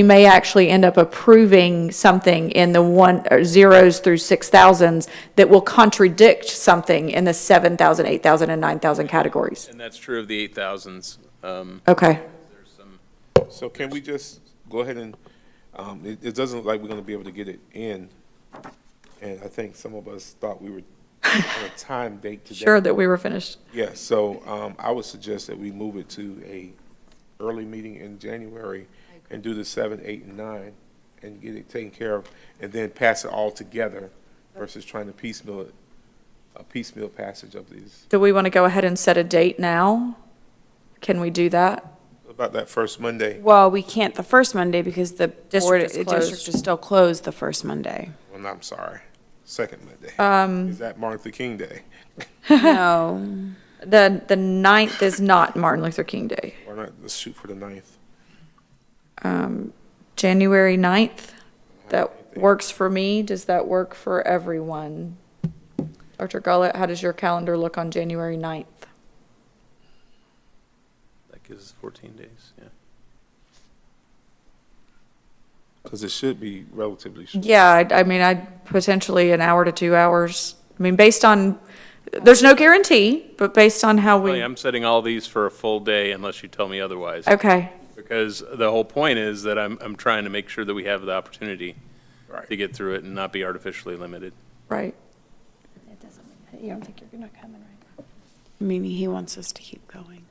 we may actually end up approving something in the one, or zeros through six thousands that will contradict something in the seven thousand, eight thousand, and nine thousand categories. And that's true of the eight thousands. Um, Okay, So can we just go ahead and, um, it, it doesn't look like we're gonna be able to get it in. And I think some of us thought we were on a time date today. sure that we were finished. Yeah, so, um, I would suggest that we move it to a early meeting in January and do the seven, eight, and nine and get it taken care of and then pass it all together versus trying to piecemeal it, a piecemeal passage of these. Do we want to go ahead and set a date now? Can we do that? About that first Monday, Well, we can't the first Monday because the District board, is the closed. district is still closed the first Monday. well, no, I'm sorry, second Monday. Um. Is that Martin Luther King Day? No, The, the ninth is not Martin Luther King Day. Why not, let's shoot for the ninth. Um, January 9th, that works for me. Does that work for everyone? Dr. Gullett, how does your calendar look on January 9th? that gives us fourteen days, yeah. Because it should be relatively short. Yeah, I, I mean, I potentially an hour to two hours. I mean, based on, there's no guarantee, but based on how Really, we, I'm setting all these for a full day unless you tell me otherwise. okay, Because the whole point is that I'm, I'm trying to make sure that we have the opportunity Right. to get through it and not be artificially limited. right. It doesn't, you don't think you're not coming, right? meaning he wants us to keep going.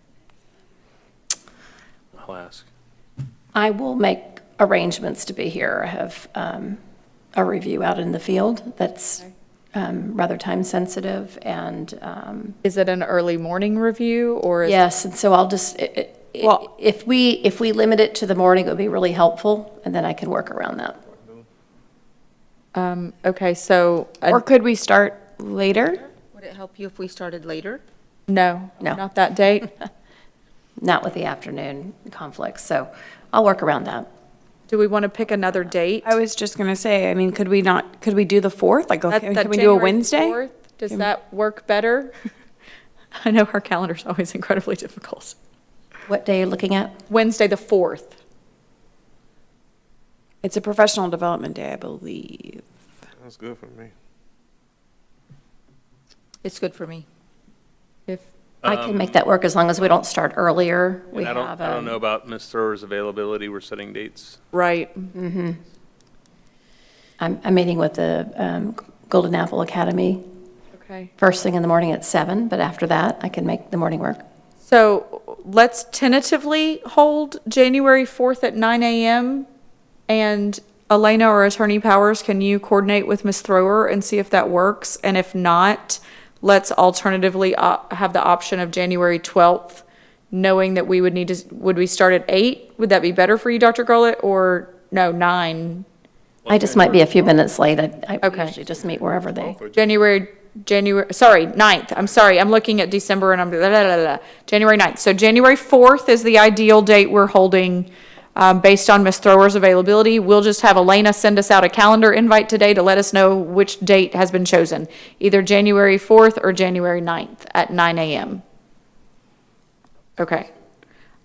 I'll ask. I will make arrangements to be here. I have um, a review out in the field that's um, rather time-sensitive, and um, Is it an early morning review or is? yes, and so I'll just, i- i- i- Well- if we, if we limit it to the morning, it would be really helpful, and then I can work around that. um, Okay, so, uh, Or could we start later? Would it help you if we started later? no, No. not that date. Not with the afternoon conflicts, so I'll work around that. Do we want to pick another date? I was just gonna say, I mean, could we not, could we do the fourth? Like, That- okay, that can we do a January Wednesday? 4th, Does that work better? I know our calendar's always incredibly difficult. What day are you looking at? Wednesday, the 4th. It's a professional development day, I believe. That's good for me. It's good for me. If, I can make that work as long as we don't start earlier. We Um, And I don't, have, I don't um, know about Ms. Thrower's availability. We're setting dates. right, I'm, I'm meeting with the um, Golden Apple Academy okay. first thing in the morning at seven, but after that, I can make the morning work. So let's tentatively hold January 4th at nine AM. And Elena or Attorney Powers, can you coordinate with Ms. Thrower and see if that works? And if not, let's alternatively op- have the option of January 12th, knowing that we would need to, would we start at 8? Would that be better for you, Dr. Gullett, or, no, 9? I just might be a few minutes late. I I Okay. usually just meet wherever they, January, January, sorry, 9th, I'm sorry, I'm looking at December and I'm, blah, blah, blah, blah. January 9th. So January 4th is the ideal date we're holding, um, based on Ms. Thrower's availability. We'll just have Elena send us out a calendar invite today to let us know which date has been chosen, either January 4th or January 9th at nine AM. Okay.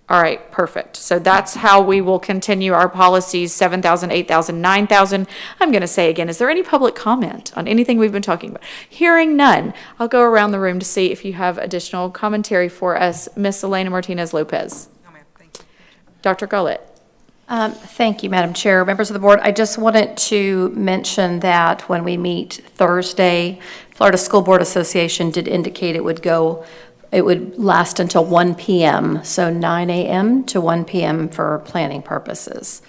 All right, perfect. So that's how we will continue our policies, 7,000, 8,000, 9,000. I'm going to say again, is there any public comment on anything we've been talking about? Hearing none, I'll go around the room to see if you have additional commentary for us. Miss Elena Martinez Lopez. No, ma'am, thank you. Dr. Gullett. Um, Thank you, Madam Chair, members of the board. I just wanted to mention that when we meet Thursday, Florida School Board Association did indicate it would go, it would last until 1 PM, so 9 AM to 1 PM for planning purposes.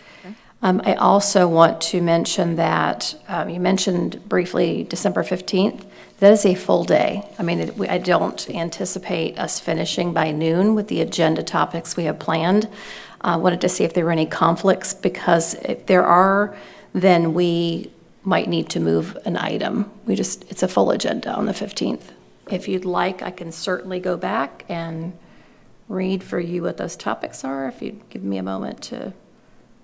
Um, I also want to mention that, um, you mentioned briefly December 15th. That is a full day. I mean, it- we- I don't anticipate us finishing by noon with the agenda topics we have planned. I wanted to see if there were any conflicts, because if there are, then we might need to move an item. We just, it's a full agenda on the 15th. If you'd like, I can certainly go back and read for you what those topics are, if you'd give me a moment to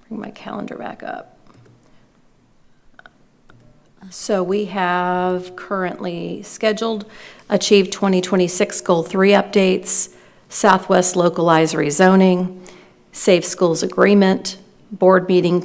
bring my calendar back up. So we have currently scheduled Achieve 2026 Goal 3 updates, Southwest Localized Rezoning, Safe Schools Agreement, Board Meeting